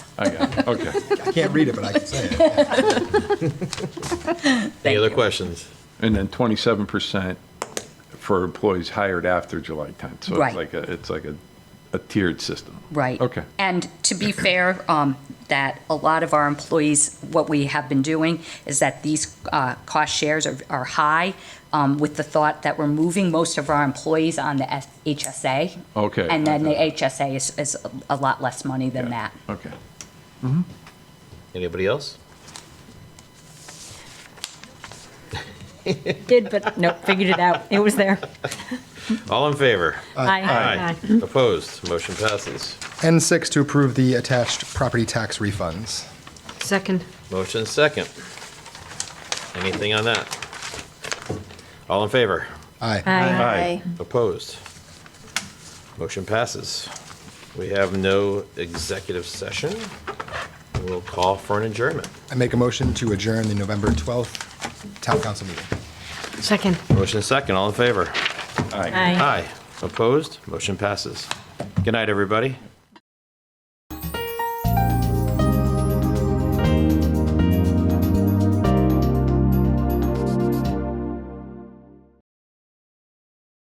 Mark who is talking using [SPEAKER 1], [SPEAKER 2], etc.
[SPEAKER 1] I got it, okay.
[SPEAKER 2] I can't read it, but I can say it.
[SPEAKER 3] Any
[SPEAKER 4] Thank
[SPEAKER 3] other
[SPEAKER 4] you.
[SPEAKER 3] questions?
[SPEAKER 1] And then 27% for employees hired after July 10th. So
[SPEAKER 4] Right.
[SPEAKER 1] it's like, a it's like a a tiered system.
[SPEAKER 4] Right.
[SPEAKER 1] Okay.
[SPEAKER 4] And to be fair, um, that a lot of our employees, what we have been doing is that these, uh, cost shares are, are high, um, with the thought that we're moving most of our employees on the S- HSA.
[SPEAKER 1] Okay.
[SPEAKER 4] And then the HSA is, is a lot less money than that.
[SPEAKER 1] Okay.
[SPEAKER 3] Anybody else?
[SPEAKER 5] Did, but nope, figured it out. It was there.
[SPEAKER 3] All in favor?
[SPEAKER 5] Aye.
[SPEAKER 3] Opposed? Motion passes.
[SPEAKER 2] N6 to approve the attached property tax refunds.
[SPEAKER 6] Second.
[SPEAKER 3] Motion second. Anything on that? All in favor?
[SPEAKER 2] Aye.
[SPEAKER 5] Aye.
[SPEAKER 1] Aye.
[SPEAKER 3] Opposed? Motion passes. We have no executive session. We'll call for an adjournment.
[SPEAKER 2] I make a motion to adjourn the November 12th town council meeting.
[SPEAKER 6] Second.
[SPEAKER 3] Motion second. All in favor?
[SPEAKER 1] Aye.
[SPEAKER 5] Aye.
[SPEAKER 3] Aye. Opposed? Motion passes. Good night, everybody.